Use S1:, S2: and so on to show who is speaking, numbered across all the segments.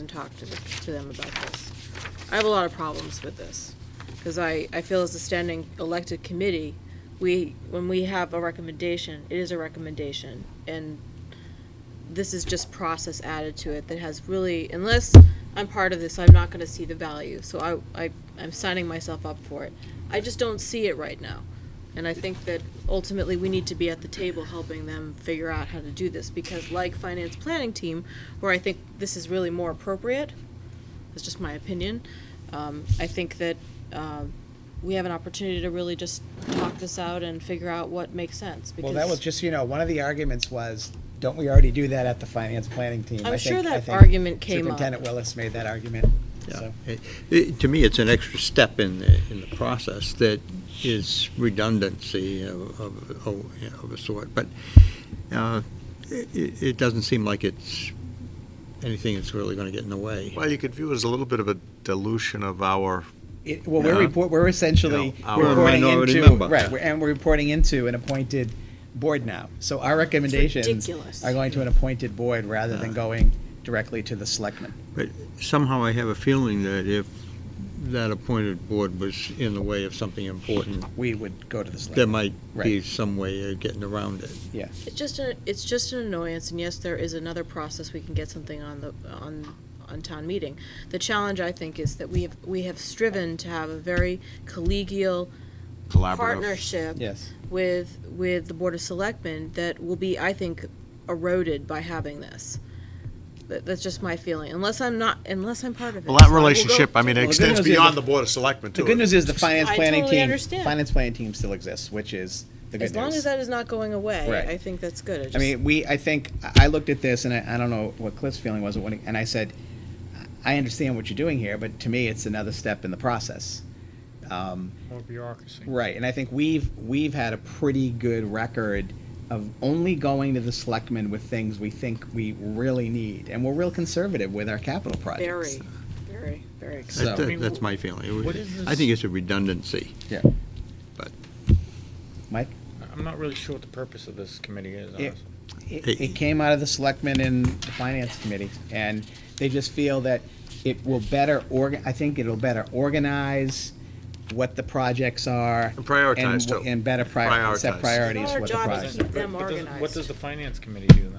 S1: and talk to, the- to them about this. I have a lot of problems with this, because I, I feel as a standing elected committee, we, when we have a recommendation, it is a recommendation, and this is just process added to it that has really, unless I'm part of this, I'm not gonna see the value, so I, I, I'm signing myself up for it. I just don't see it right now, and I think that ultimately we need to be at the table helping them figure out how to do this, because like finance planning team, where I think this is really more appropriate, that's just my opinion, um, I think that, um, we have an opportunity to really just talk this out and figure out what makes sense, because.
S2: Well, that was, just so you know, one of the arguments was, don't we already do that at the finance planning team?
S1: I'm
S2: I
S1: sure
S2: think- I
S1: that
S2: think
S1: argument came up.
S2: Superintendent Willis made that argument,
S3: Yeah,
S2: so.
S3: It- it- To me, it's an extra step in, the- in the process that is redundancy of, of, of you know, of a sort, but uh, it, it doesn't seem like it's anything that's really going to get in the way.
S4: Well, you could view it as a little bit of a dilution of our,
S2: It- Well, we're
S4: Yeah.
S2: report, we're essentially
S4: You know, our
S2: reporting
S3: minority
S2: into,
S3: member.
S2: right, we're- and we're reporting into an appointed board now. So our recommendations
S1: ridiculous.
S2: are going to an appointed board rather than
S3: Yeah.
S2: going directly to the selectmen.
S3: But somehow I have a feeling that if that appointed board was in the way of something important,
S2: We would go to the selectmen.
S3: there might be
S2: Right.
S3: some way of getting around it.
S2: Yeah.
S1: It's just a, it's just an annoyance, and yes, there is another process we can get something on the, on, on town meeting. The challenge, I think, is that we have, we have striven to have a very collegial
S4: Collaborative.
S1: partnership
S2: Yes.
S1: with, with the Board of Selectmen that will be, I think, eroded by having this. That, that's just my feeling, unless I'm not, unless I'm part of it.
S4: well,
S1: So
S4: that
S1: I will go-
S4: relationship, I mean,
S2: Well, the
S4: it
S2: good
S4: extends
S2: news is
S4: beyond
S2: the-
S4: the Board of Selectmen,
S2: The
S4: too.
S2: good news is the finance
S1: I
S2: planning
S1: totally
S2: team,
S1: understand.
S2: finance planning team still exists, which is the good news.
S1: As long as that is not going away,
S2: Right.
S1: I think that's good. It
S2: I
S1: just-
S2: mean, we, I think, I I looked at this, and I, I don't know what Cliff's feeling was, when he- and I said, I understand what you're doing here, but to me, it's another step in the process. Um,
S5: More bureaucracy.
S2: Right, and I think we've, we've had a pretty good record of only going to the selectmen with things we think we really need, and we're real conservative with our capital projects.
S1: Very, very, very. exciting.
S2: So-
S3: That- that- That's my feeling. It was-
S5: What is
S3: I think it's a redundancy.
S2: Yeah.
S3: But-
S2: Mike,
S5: I'm not really sure what the purpose of this committee is,
S2: Yeah.
S5: honestly.
S2: it, it came out of the selectmen and the finance committee, and they just feel that it will better org, I think it'll better organize what the projects are.
S4: And prioritize,
S2: and wh-
S4: too.
S2: And better prioritize, set
S4: Prioritize.
S2: priorities
S1: It's
S2: for
S1: our
S2: the
S1: job to
S2: projects.
S1: keep them
S5: What does- What
S1: organized.
S5: does the finance committee do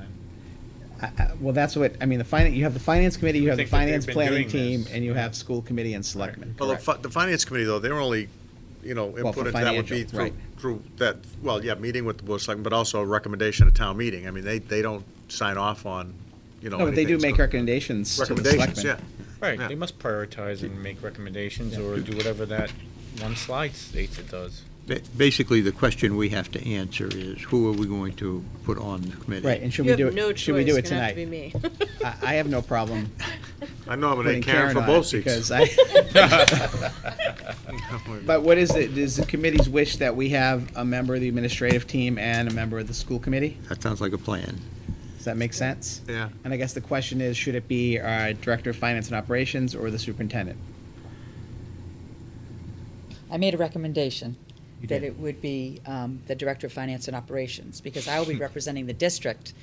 S5: then?
S2: I- Well, that's what, I mean, the finance, you have the finance committee, you
S5: would
S2: have the
S5: think that they've
S2: finance
S5: been
S2: planning
S5: doing
S2: team,
S5: this.
S2: and you have school committee and selectmen.
S4: Well, the,
S2: correct.
S4: fi- the Finance Committee, though, they're only, you know,
S2: Well, for
S4: input into that would be
S2: financial,
S4: through,
S2: right.
S4: through that, well, yeah, meeting with the Board of Selectmen, but also a recommendation at town meeting. I mean, they, they don't sign off on, you know,
S2: No, but they do
S4: anything,
S2: make
S4: so-
S2: recommendations to the
S4: Recommendations, yeah.
S2: selectmen.
S5: Right,
S4: Yeah.
S5: they must prioritize and make recommendations or do whatever that one slide states it does.
S3: Ba- Basically, the question we have to answer is, who are we going to put on the committee?
S2: Right, and should
S1: You
S2: we
S1: have
S2: do
S1: no
S2: it,
S1: choice,
S2: should we do it
S1: it's gonna have to be
S2: tonight?
S1: me.
S2: I, I have no problem
S4: I
S2: putting
S4: nominate
S2: Karen
S4: Karen for
S2: on it,
S4: both seats.
S2: because uh, I. But what is it, is the committee's wish that we have a member of the administrative team and a member of the school committee?
S3: That sounds like a plan.
S2: Does that make sense?
S4: Yeah.
S2: And I guess the question is, should it be our director of finance and operations or the superintendent?
S6: I made a recommendation
S2: You
S6: that
S2: did.
S6: it would be um, the Director of Finance and Operations, because I will be representing the district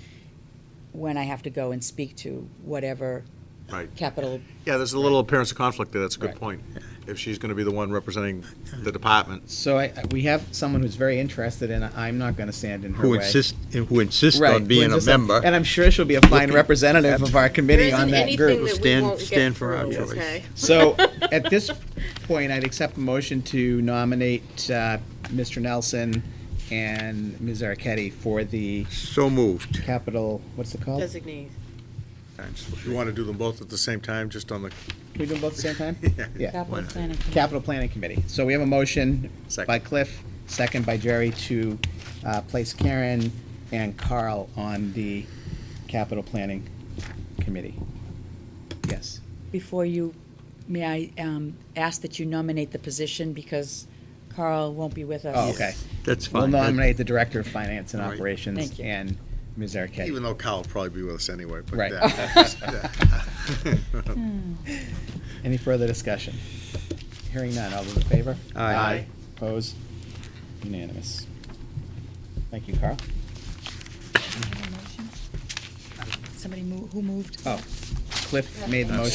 S6: when I have to go and speak to whatever
S4: Right.
S6: capital,
S4: Yeah, there's a little appearance of conflict there. That's a good
S2: Right.
S4: point. If she's going to be the one representing the department.
S2: So I, I- we have someone who's very interested and I'm not gonna stand in her
S3: Who
S2: way.
S3: insist, who insists
S2: Right,
S3: on
S2: who
S3: being a
S2: insists on-
S3: member.
S2: And I'm sure she'll be a fine
S3: Looking-
S2: representative of our committee on that
S1: There
S2: group.
S1: isn't anything that we
S3: Stand-
S1: won't get
S3: stand for our
S1: through,
S3: choice.
S1: okay?
S2: So at this point, I'd accept a motion to nominate uh, Mr. Nelson and Ms. Arquette for the
S3: So moved.
S2: capital, what's it called?
S1: Designee.
S4: If you want to do them both at the same time, just on the,
S2: Can we do them both at the same time? Yeah.
S6: capital planning.
S2: Capital Planning Committee. So we have a motion
S4: Second.
S2: by Cliff, second by Jerry to uh, place Karen and Carl on the Capital Planning Committee. Yes.
S6: Before you, may I um, ask that you nominate the position, because Carl won't be with us.
S2: Oh, okay.
S3: That's
S2: We'll
S3: fine. That-
S2: nominate the Director of Finance and
S3: Right.
S2: Operations
S6: Thank you.
S2: and Ms. Arquette.
S4: even though Kyle will probably be with us anyway. but
S2: Right.
S4: yeah.
S2: Any further discussion? Hearing none, all those in favor? Aye. Opposed? Unanimous. Thank you, Carl.
S6: Somebody move, who moved?
S2: Oh, Cliff made the motion.